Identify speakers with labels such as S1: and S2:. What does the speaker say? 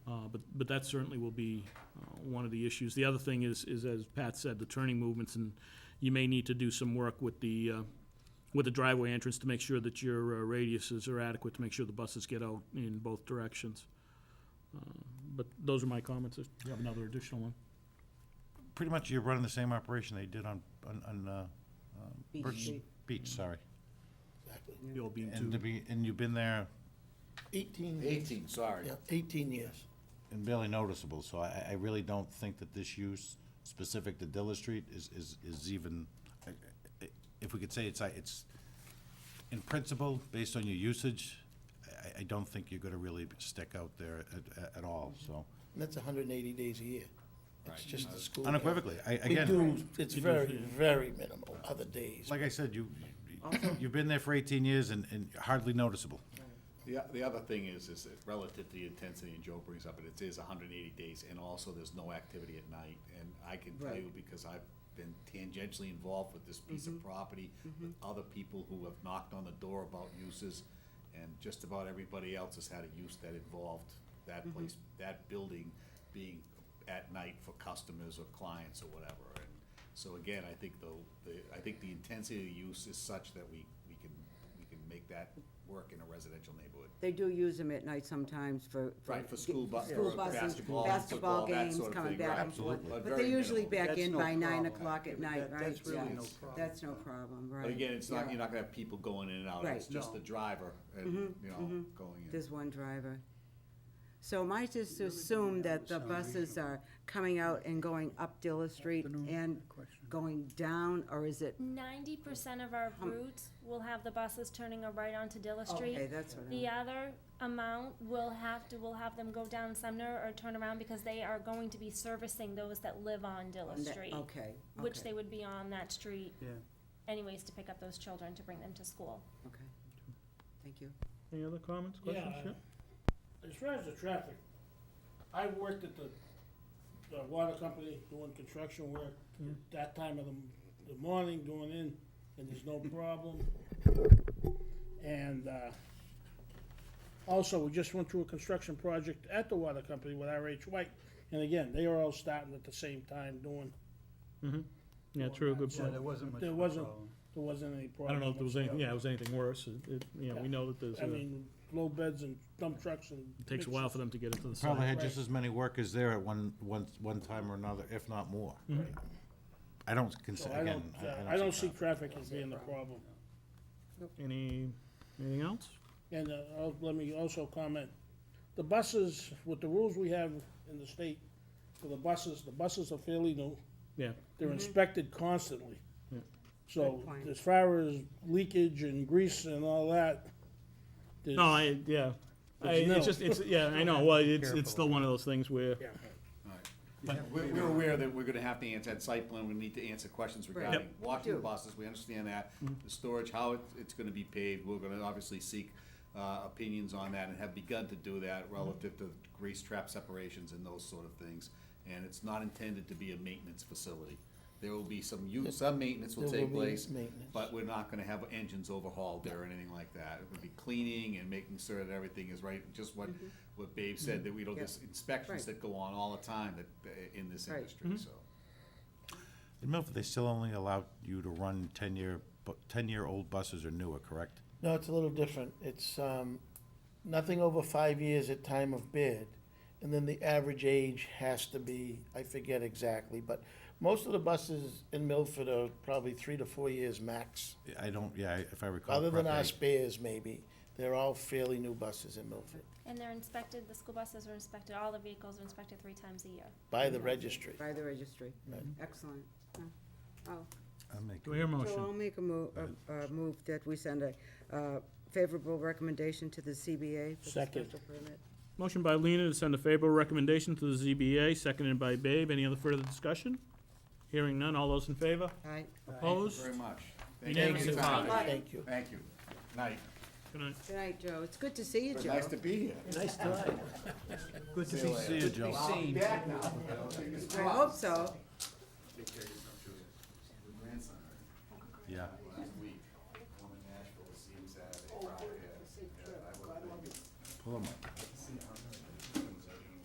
S1: Uh, but that certainly will be uh, one of the issues. The other thing is, is as Pat said, the turning movements, and you may need to do some work with the, uh, with the driveway entrance to make sure that your uh, radiuses are adequate, to make sure the buses get out in both directions. Uh, But those are my comments. If you have another additional one.
S2: Pretty much you're running the same operation they did on, on, on, uh, um,
S3: Beach
S2: Birch-
S3: Street.
S2: Beach, sorry.
S1: You'll be
S2: And to
S1: into,
S2: be, and you've been there
S3: Eighteen, years.
S4: 18, sorry.
S3: yeah, eighteen years.
S2: and barely noticeable, so I, I really don't think that this use specific to Dilla Street is, is, is even, I- I- if we could say it's, I- it's, in principle, based on your usage, I, I don't think you're gonna really stick out there at, at all, so.
S3: And that's hundred and eighty days a year. It's just the school. year.
S2: Unequivocally, I,
S3: We
S2: again,
S3: do, it's very, very minimal other days.
S2: like I said, you, you've been there for eighteen years and, and hardly noticeable.
S4: The, o- the other thing is, is that relative to the intensity, and Joe brings up, it, it is hundred and eighty days, and also there's no activity at night. And I can tell you, because I've been tangentially involved with this piece of property, with other people who have knocked on the door about uses, and just about everybody else has had a use that involved that place, that building being at night for customers or clients or whatever. And so again, I think the, the, I think the intensity of the use is such that we, we can, we can make that work in a residential neighborhood.
S5: They do use them at night sometimes for.
S4: Right, for school bu-
S5: school
S4: for
S5: buses,
S4: basketball, football,
S5: Basketball
S4: that
S5: games,
S4: sort of
S5: coming
S4: thing,
S5: back
S4: right.
S5: and forth.
S4: Absolutely. But
S5: But
S4: very
S5: they're usually
S4: minimal.
S5: back
S6: That's
S5: in
S6: no
S5: by nine
S6: problem.
S5: o'clock at night,
S6: that-
S5: right?
S6: that's really
S5: Yeah.
S6: no problem.
S5: That's no problem, right.
S4: But again, it's
S5: Yeah.
S4: not, you're not gonna have people going in and out, it's
S5: Right. Mm-hmm,
S4: just the driver and, you know, going in.
S5: There's one driver. So am I just to assume that the buses are coming out and going up Dilla Street and going down, or is it?
S7: Ninety percent of our routes will have the buses turning a right onto Dilla Street.
S5: Okay, that's what
S7: The
S5: I,
S7: other amount will have to, will have them go down Sumner or turn around because they are going to be servicing those that live on Dilla Street.
S5: okay,
S7: Which they
S5: okay,
S7: would be on that street
S6: Yeah.
S7: anyways to pick up those children to bring them to school.
S5: okay. Thank you.
S1: any other comments,
S8: Yeah,
S1: questions? Yeah.
S8: As far as the traffic, I worked at the, the water company doing construction work, that time of the, m- the morning going in, and there's no problem. And, uh, also, we just went through a construction project at the water company with RH White, and again, they were all starting at the same time doing,
S1: Mm-hmm. Yeah, true, good
S6: Yeah,
S1: point.
S6: there wasn't much
S8: There
S6: of a
S8: wasn't-
S6: problem.
S8: there wasn't any
S1: I
S8: problem.
S1: don't know if there was anything, yeah, it was anything worse. It- it- You know, we know that there's,
S8: I
S1: a-
S8: mean, low beds and dump trucks and.
S1: it takes a while for them to get into the site.
S2: Probably had just as many workers there at one, one, one time or another, if not more. I don't
S8: Mm-hmm. So
S2: consider,
S8: I
S2: again,
S8: don't,
S2: I-
S8: uh, I don't see
S2: that.
S8: traffic as being the problem.
S1: Any, anything else?
S8: And uh, I'll- let me also comment, the buses, with the rules we have in the state for the buses, the buses are fairly new.
S1: Yeah.
S8: They're inspected constantly.
S1: Yeah.
S8: So
S5: Mm-hmm. Good point.
S8: as far as leakage and grease and all that, there's.
S1: No, I, yeah. I,
S8: no.
S1: it's just, it's, yeah, I know, well, it's, it's still one of those things where,
S8: Yeah.
S4: We're, we're aware that we're gonna have to answer at site plan, we need to answer questions regarding
S5: Do.
S4: walking buses, we understand that.
S3: Mm-hmm.
S4: The storage, how it, it's gonna be paved, we're gonna obviously seek, uh, opinions on that and have begun to do that
S3: Mm-hmm.
S4: relative to grease trap separations and those sort of things. And it's not intended to be a maintenance facility. There will be some use, some maintenance will
S3: There will
S4: take
S3: be
S4: place,
S3: maintenance.
S4: but we're not gonna have engines overhauled there or anything like that. It would be cleaning and making sure that everything is right, just what, what Babe said, that we don't,
S5: Yeah.
S4: just inspections
S5: Mm-hmm. Right.
S4: that go on all the time that, uh, in this
S5: Right.
S4: industry, so.
S2: In Milford, they still only allow you to run ten-year, ten-year-old buses or newer, correct?
S3: No, it's a little different. It's, um, nothing over five years at time of bid. And then the average age has to be, I forget exactly, but most of the buses in Milford are probably three to four years max.
S2: I don't, yeah, if I recall
S3: Other than our
S2: correctly.
S3: spares maybe, they're all fairly new buses in Milford,
S7: And they're inspected, the school buses are inspected, all the vehicles are inspected three times a year.
S3: by the registry.
S5: By the registry.
S3: Right.
S5: Excellent. Yeah. Oh,
S2: I'll make
S1: do I hear a
S5: So I'll
S1: motion?
S5: make a move, a move that we send a uh, favorable recommendation to the CBA for the
S8: Second.
S5: special permit.
S1: Motion by Lena to send a favorable recommendation to the ZBA, seconded by Babe. Any other further discussion? Hearing none, all those in favor?
S5: Aye.
S4: Thank
S1: Opposed?
S4: you very much.
S1: Unanimous
S4: Thank you.
S1: and aye.
S3: Thank you.
S4: Thank you. Night.
S1: Good night.
S5: Good night, Joe. It's good to see you,
S4: But
S5: Joe.
S4: Nice to be here.
S6: Nice try.
S2: Good to see you, Joe.
S4: I'm back now. Fingers
S5: I
S4: crossed.
S5: hope so.
S4: Grandson,
S2: Yeah.
S4: last week, going to Nashville to see him Saturday, Friday. Yeah, I would-
S2: Pull 'em up.